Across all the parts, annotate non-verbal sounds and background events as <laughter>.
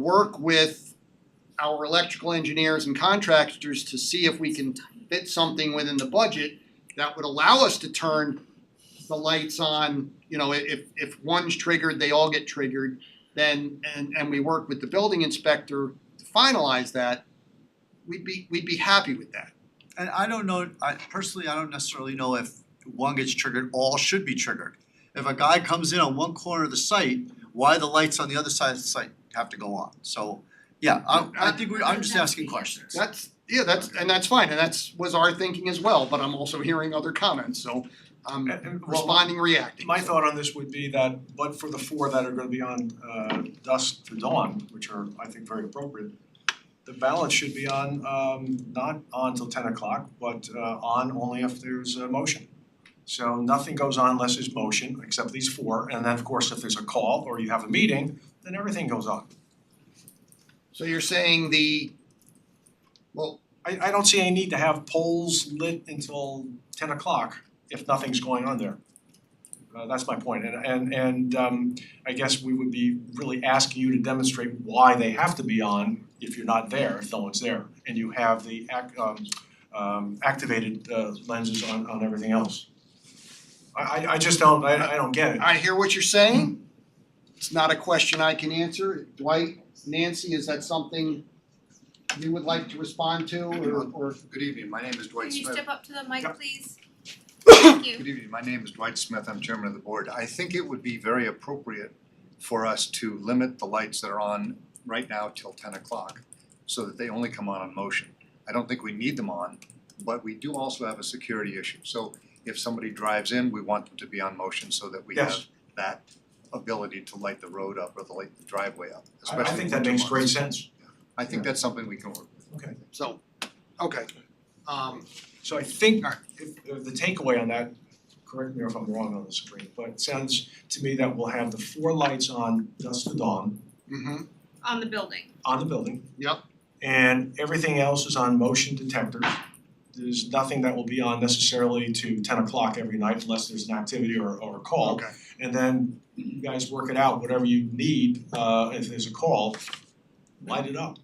work with our electrical engineers and contractors to see if we can fit something within the budget that would allow us to turn the lights on, you know, i- if if one's triggered, they all get triggered, then and and we work with the building inspector to finalize that, we'd be we'd be happy with that. And I don't know, I personally, I don't necessarily know if one gets triggered, all should be triggered. If a guy comes in on one corner of the site, why the lights on the other side of the site have to go on? So, yeah, I I think we, I'm just asking questions. That's, yeah, that's, and that's fine, and that's was our thinking as well, but I'm also hearing other comments, so I'm And- and- well, responding, reacting. My so. thought on this would be that, but for the four that are gonna be on uh dusk to dawn, which are, I think, very appropriate, the balance should be on um not on till ten o'clock, but uh on only if there's a motion. So nothing goes on unless there's motion, except these four, and then of course, if there's a call or you have a meeting, then everything goes on. So you're saying the, well, I I don't see any need to have polls lit until ten o'clock if nothing's going on there. Uh that's my point and and and um I guess we would be really asking you to demonstrate why they have to be on if you're not there, if no one's there, and you have the ac- um um activated uh lenses on on everything else. I I I just don't, I I don't get it. I hear what you're saying, it's not a question I can answer, Dwight, Nancy, is that something you would like to respond to, or or? Good evening, my name is Dwight Can you Smith. step up to the Yeah. mic, please? Thank <coughs> you. Good evening, my name is Dwight Smith, I'm chairman of the board. I think it would be very appropriate for us to limit the lights that are on right now till ten o'clock so that they only come on on motion. I don't think we need them on, but we do also have a security issue. So if somebody drives in, we want them to be on motion so that we have Yes. that ability to light the road up or to light the driveway up, I I especially think that winter makes months. great sense. I think that's something we can work with. Okay. So, okay, um, So I think uh, if if the takeaway on that, correct me if I'm wrong on this, screen, but it sounds to me that we'll have the four lights on dusk to dawn mhm, On the building. on the building. Yep. And everything else is on motion detectors. There's nothing that will be on necessarily to ten o'clock every night unless there's an activity or or a call. okay, And then you guys work it out, whatever you need, uh if there's a call, light it up.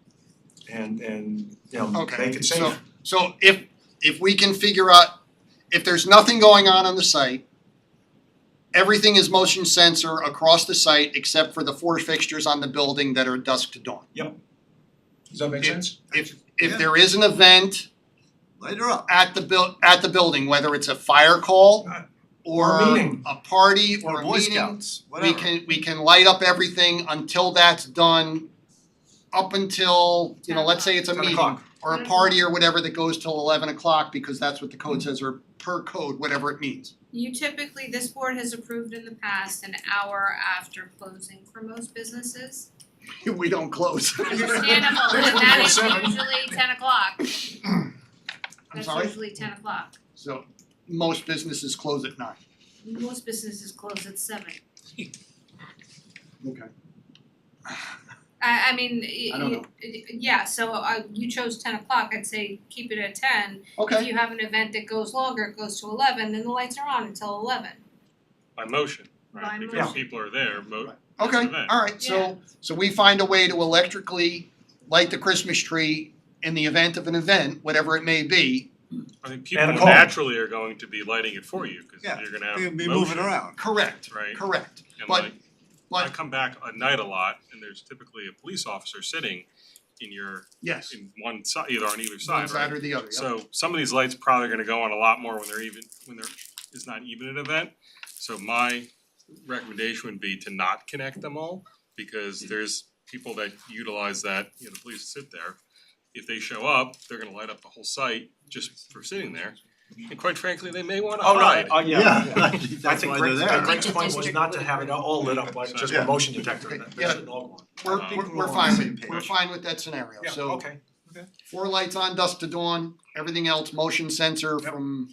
And and, you know, Okay, make it safe. so- so if if we can figure out, if there's nothing going on on the site, everything is motion sensor across the site except for the four fixtures on the building that are dusk to dawn. Does that make Yeah. sense? If if Yeah. there is an event Later up. at the buil- at the building, whether it's a fire call Right. or Or a meeting. a party or a Boy meeting, Scouts, we whatever. can we can light up everything until that's done. Up until, you know, let's say it's a Ten meeting o'clock. or Mm-hmm. a party or whatever that goes till eleven o'clock because that's what the code says or per code, whatever it means. <laughs> You typically, this board has approved in the past an hour after closing for most businesses. We don't close. <laughs> <laughs> Understandable, but that is usually ten o'clock. I'm That's sorry, usually ten o'clock. so most businesses close at nine. Most businesses close at seven. Okay. I I mean, y- I don't y- y- yeah, so uh you chose ten o'clock, I'd say keep it at ten. If Okay, you have an event that goes longer, it goes to eleven, then the lights are on until eleven. By motion, right, By because motion. people are there, mo- it's an okay, event. alright, so so we find a way to electrically light the Christmas tree in the event of an event, whatever it may be. I think people And a call. naturally are going to be lighting it for you, cause Yeah, you're gonna have We motion, can be moving around. Correct, right? correct. And but- like, I But come back at night a lot, and there's typically a police officer sitting in your, yes, in one side, either on either one side, right? side or the other, yep. So some of these lights probably gonna go on a lot more when they're even, when there is not even an event. So my recommendation would be to not connect them all, because there's people that utilize that, you know, the police sit there. If they show up, they're gonna light up the whole site just for sitting there, and quite frankly, they may wanna Oh, no, hide. oh, <laughs> yeah, yeah. I that's think why they're Greg's, there. Greg's point was not to have it all lit up like just a Yeah. motion detector, that Yeah. that should all go on. We're I think we're we're we're all on fine the same with, we're page. fine with that scenario, so. Yeah, okay. Four lights on, dusk to dawn, everything else, motion sensor Yep. from,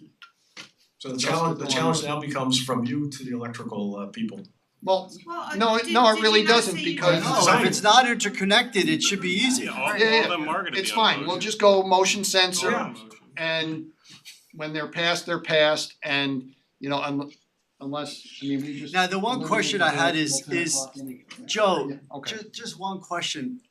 So the Just challenge, the the one. challenge now becomes from you to the electrical uh people. well, Well, No, it- no, it really doesn't because- No, if it's not interconnected, it should be easy. Yeah, all, all of Yeah, yeah, them are gonna be it's on fine, we'll motion. just go motion All sensor Oh, Yeah. on motion. and when they're passed, they're passed and, you know, un- unless, I mean, we just. Now, the one question I had is- Eliminate is, the whole 10 o'clock anyway. Joe, Yeah, Okay, Just just one question,